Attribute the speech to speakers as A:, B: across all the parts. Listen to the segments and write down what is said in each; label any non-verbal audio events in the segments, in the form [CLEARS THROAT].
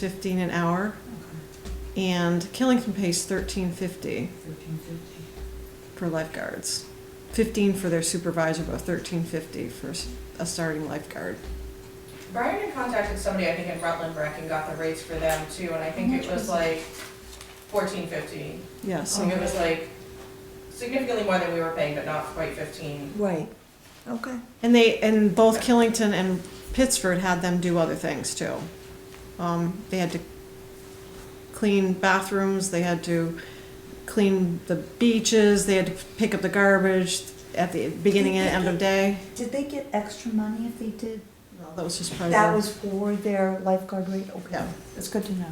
A: fifteen an hour, and Killington pays thirteen fifty
B: Thirteen fifty.
A: for lifeguards. Fifteen for their supervisor, but thirteen fifty for s- a starting lifeguard.
C: Brian had contacted somebody, I think in Rutland Rec, and got the rates for them too, and I think it was like fourteen fifty.
A: Yeah,
C: So
A: so
C: it was like significantly more than we were paying, but not quite fifteen.
D: Right, okay.
A: and they and both Killington and Pittsford had them do other things too. Um, they had to clean bathrooms. They had to clean the beaches. They had to pick up the garbage at the beginning and end of day.
D: Did they get extra money if they did?
A: Well, that was just part of
D: That
A: their-
D: was for their lifeguard rate? Okay,
A: Yeah.
D: that's good to know.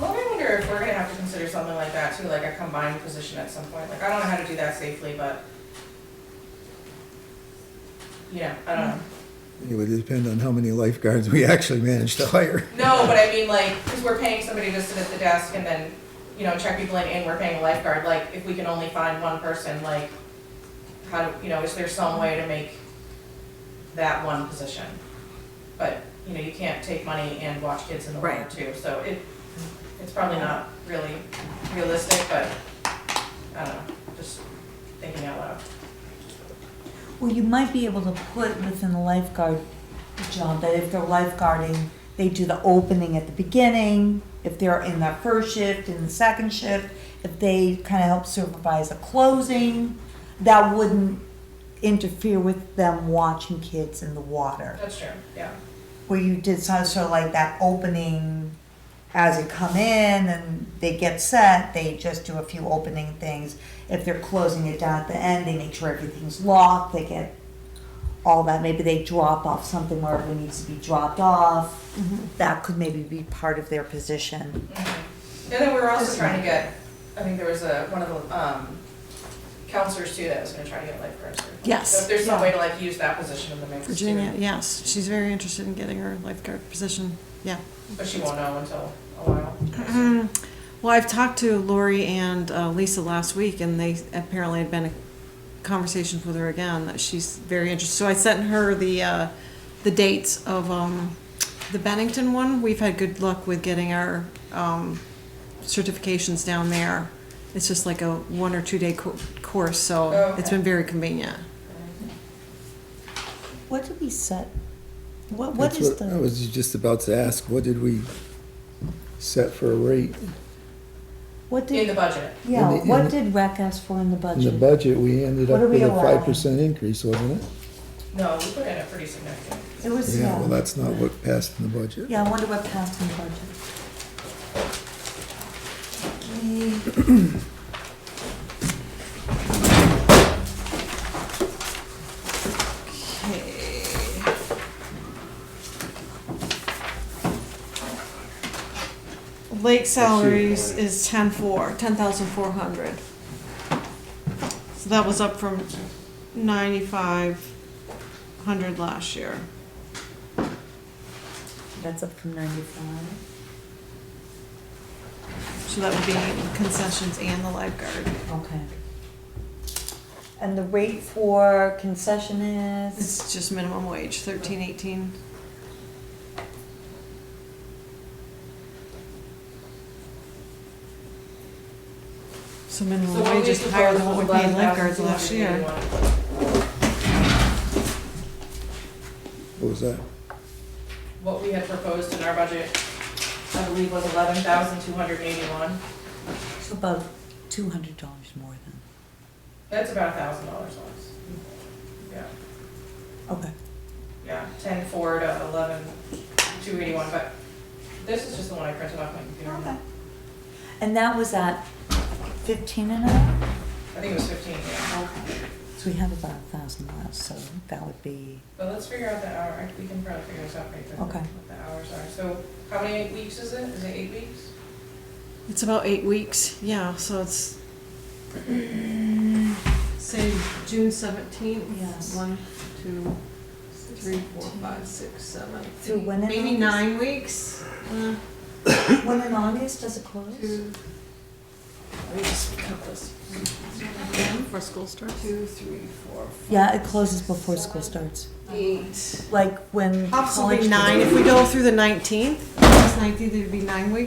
C: Well, I wonder if we're gonna have to consider something like that too, like a combined position at some point, like I don't know how to do that safely, but. You know, I don't know.
E: It would depend on how many lifeguards we actually manage to hire.
C: No, but I mean, like, because we're paying somebody to sit at the desk and then, you know, check people in, and we're paying a lifeguard, like, if we can only find one person, like, how, do you know, is there some way to make that one position? But, you know, you can't take money and watch kids in the water
D: Right.
C: too, so it, it's probably not really realistic, but, I don't know, just thinking out loud.
D: Well, you might be able to put within the lifeguard job that if they're lifeguarding, they do the opening at the beginning, if they're in their first shift, in the second shift, if they kind of help supervise the closing, that wouldn't interfere with them watching kids in the water.
C: That's true, yeah.
D: where you did some sort of like that opening as they come in and they get set, they just do a few opening things. If they're closing it down at the end, they make sure everything's locked, they get all that. Maybe they drop off something wherever it needs to be dropped off.
A: Mm-hmm.
D: That could maybe be part of their position.
C: Mm-hmm. And then we were also trying to get, I think there was a, one of the, um, counselors too that was gonna try to get lifeguards.
A: Yes,
C: So if there's some
A: yeah.
C: way to like use that position in the mix too.
A: Virginia, yes, she's very interested in getting her lifeguard position, yeah.
C: But she won't know until a while.
A: Well, I've talked to Lori and uh, Lisa last week, and they apparently had been in conversations with her again, that she's very interested. So I sent her the, uh, the dates of um, the Bennington one. We've had good luck with getting our um, certifications down there. It's just like a one or two-day co- course, so it's
C: Okay.
A: been very convenient.
D: What did we set? What, what
E: That's
D: is
E: I
D: the,
E: was just about to ask, what did we set for a rate?
D: what
C: In the
D: did,
C: budget.
D: yeah,
E: in the-
D: what
E: in the-
D: did rec ask for in the budget?
E: In the budget, we ended
D: What
E: up
D: are we
E: with a
D: allowing?
E: five percent increase, wasn't it?
C: No, we put in a pretty significant.
D: It was,
E: Yeah, well,
D: yeah,
E: that's not what passed in the budget.
D: yeah, I wonder what passed in the budget. Okay.
A: Lake salaries is ten four, ten thousand four hundred. So that was up from ninety-five hundred last year.
D: That's up from ninety-five.
A: So that would be concessions and the lifeguard.
D: Okay. And the rate for concession is?
A: It's just minimum wage, thirteen eighteen. So minimum wage is higher than what we paid lifeguards last year.
E: What was that?
C: What we had proposed in our budget, I believe was eleven thousand two hundred eighty-one.
D: It's about two hundred dollars more than.
C: That's about a thousand dollars less. Yeah.
D: Okay.
C: Yeah, ten four to eleven two eighty-one, but this is just the one I printed off my computer.
D: And that was at fifteen an hour?
C: I think it was fifteen, yeah.
D: Okay. So we have about a thousand left, so that would be,
C: But let's figure out the hour, we can probably figure this out pretty quickly,
D: Okay.
C: what the hours are. So how many weeks is it? Is it eight weeks?
A: It's about eight weeks, yeah, so it's. [CLEARS THROAT] Say June seventeenth?
D: Yes.
A: One, two, three, four, five, six, seven.
D: Through
A: eight-
D: when in
A: Maybe
D: August?
A: nine weeks, uh,
D: [COUGHS] when in August does it close?
A: two. Let me just cut this. Before school starts. Two, three, four,
D: Yeah, it closes before school starts,
A: eight.
D: like when college.
A: Possibly nine if we go through the nineteenth, August nineteenth, it'd be nine weeks.